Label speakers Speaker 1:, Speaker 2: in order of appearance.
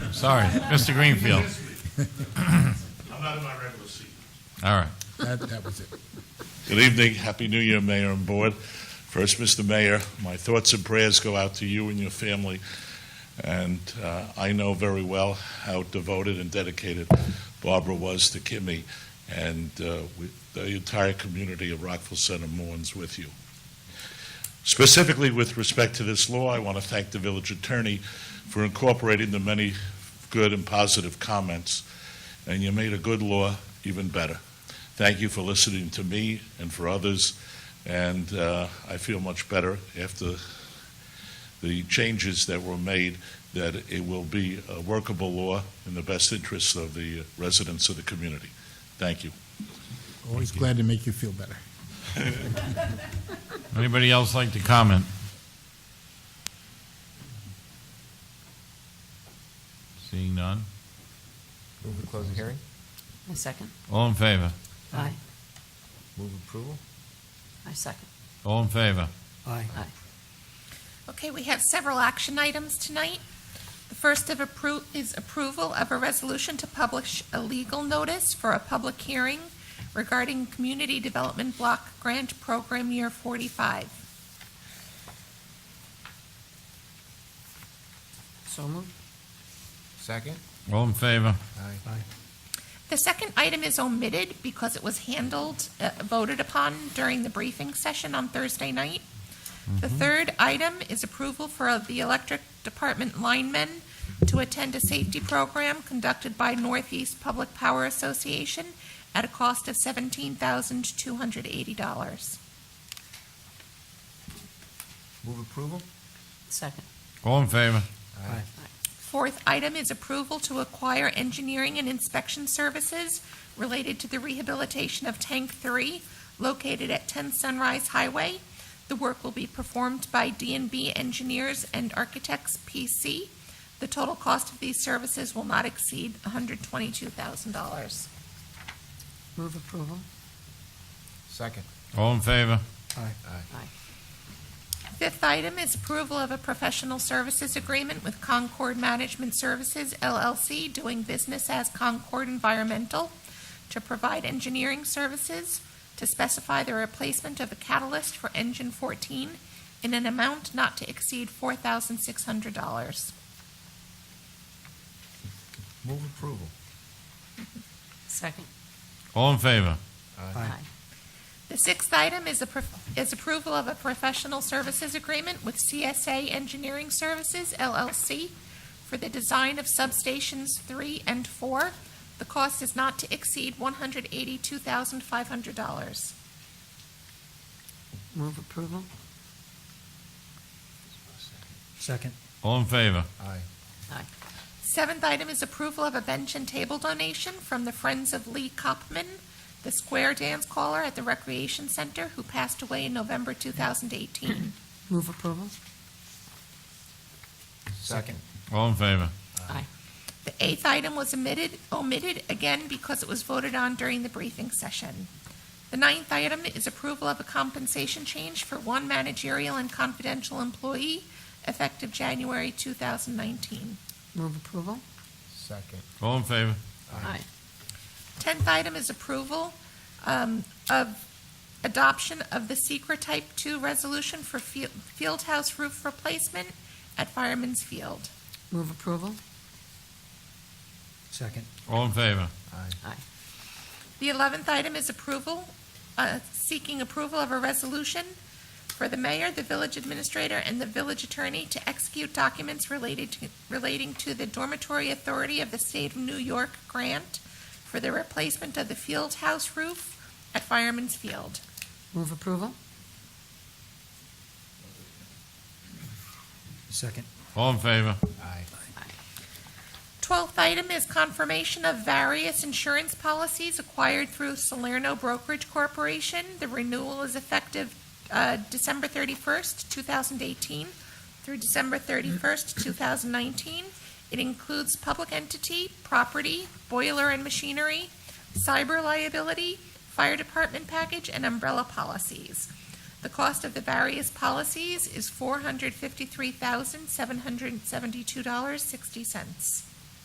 Speaker 1: Sorry, Mr. Greenfield.
Speaker 2: I'm not in my regular seat.
Speaker 1: All right.
Speaker 3: That, that was it.
Speaker 2: Good evening. Happy New Year, Mayor and Board. First, Mr. Mayor, my thoughts and prayers go out to you and your family. And uh, I know very well how devoted and dedicated Barbara was to Kimmy. And uh, we, the entire community of Rockville Center mourns with you. Specifically with respect to this law, I want to thank the village attorney for incorporating the many good and positive comments. And you made a good law even better. Thank you for listening to me and for others, and uh, I feel much better after the changes that were made, that it will be a workable law in the best interests of the residents of the community. Thank you.
Speaker 3: Always glad to make you feel better.
Speaker 1: Anybody else like to comment? Seeing none?
Speaker 4: Move to close the hearing.
Speaker 5: I second.
Speaker 1: All in favor?
Speaker 5: Aye.
Speaker 4: Move approval.
Speaker 5: I second.
Speaker 1: All in favor?
Speaker 5: Aye.
Speaker 6: Okay, we have several action items tonight. The first of appro, is approval of a resolution to publish a legal notice for a public hearing regarding Community Development Block Grant Program Year 45.
Speaker 5: So moved.
Speaker 4: Second.
Speaker 1: All in favor?
Speaker 4: Aye.
Speaker 6: The second item is omitted because it was handled, uh, voted upon during the briefing session on Thursday night. The third item is approval for uh, the electric department linemen to attend a safety program conducted by Northeast Public Power Association at a cost of seventeen thousand two hundred eighty dollars.
Speaker 4: Move approval.
Speaker 5: Second.
Speaker 1: All in favor?
Speaker 4: Aye.
Speaker 6: Fourth item is approval to acquire engineering and inspection services related to the rehabilitation of Tank 3 located at 10 Sunrise Highway. The work will be performed by d and b Engineers and Architects PC. The total cost of these services will not exceed $122,000.
Speaker 5: Move approval.
Speaker 4: Second.
Speaker 1: All in favor?
Speaker 4: Aye.
Speaker 5: Aye.
Speaker 6: Fifth item is approval of a professional services agreement with Concord Management Services LLC, doing business as Concord Environmental, to provide engineering services to specify the replacement of a catalyst for engine 14 in an amount not to exceed $4,600.
Speaker 4: Move approval.
Speaker 5: Second.
Speaker 1: All in favor?
Speaker 5: Aye.
Speaker 6: The sixth item is a, prof- is approval of a professional services agreement with CSA Engineering Services LLC for the design of substations three and four. The cost is not to exceed one hundred eighty-two thousand five hundred dollars.
Speaker 5: Move approval.
Speaker 7: Second.
Speaker 1: All in favor?
Speaker 4: Aye.
Speaker 5: Aye.
Speaker 6: Seventh item is approval of a bench and table donation from the Friends of Lee Kopman, the square dance caller at the Recreation Center who passed away in November two thousand eighteen.
Speaker 5: Move approval.
Speaker 4: Second.
Speaker 1: All in favor?
Speaker 5: Aye.
Speaker 6: The eighth item was omitted, omitted again because it was voted on during the briefing session. The ninth item is approval of a compensation change for one managerial and confidential employee effective January 2019.
Speaker 5: Move approval.
Speaker 4: Second.
Speaker 1: All in favor?
Speaker 5: Aye.
Speaker 6: Tenth item is approval um, of adoption of the secret Type 2 resolution for fiel- field house roof replacement at Fireman's Field.
Speaker 5: Move approval.
Speaker 7: Second.
Speaker 1: All in favor?
Speaker 4: Aye.
Speaker 5: Aye.
Speaker 6: The eleventh item is approval, uh, seeking approval of a resolution for the mayor, the village administrator, and the village attorney to execute documents related to, relating to the dormitory authority of the state of New York grant for the replacement of the field house roof at Fireman's Field.
Speaker 5: Move approval.
Speaker 7: Second.
Speaker 1: All in favor?
Speaker 4: Aye.
Speaker 6: Twelfth item is confirmation of various insurance policies acquired through Salerno Brokerage Corporation. The renewal is effective uh, December 31st, 2018 through December 31st, 2019. It includes public entity, property, boiler and machinery, cyber liability, fire department package, and umbrella policies. The cost of the various policies is $453,772.60.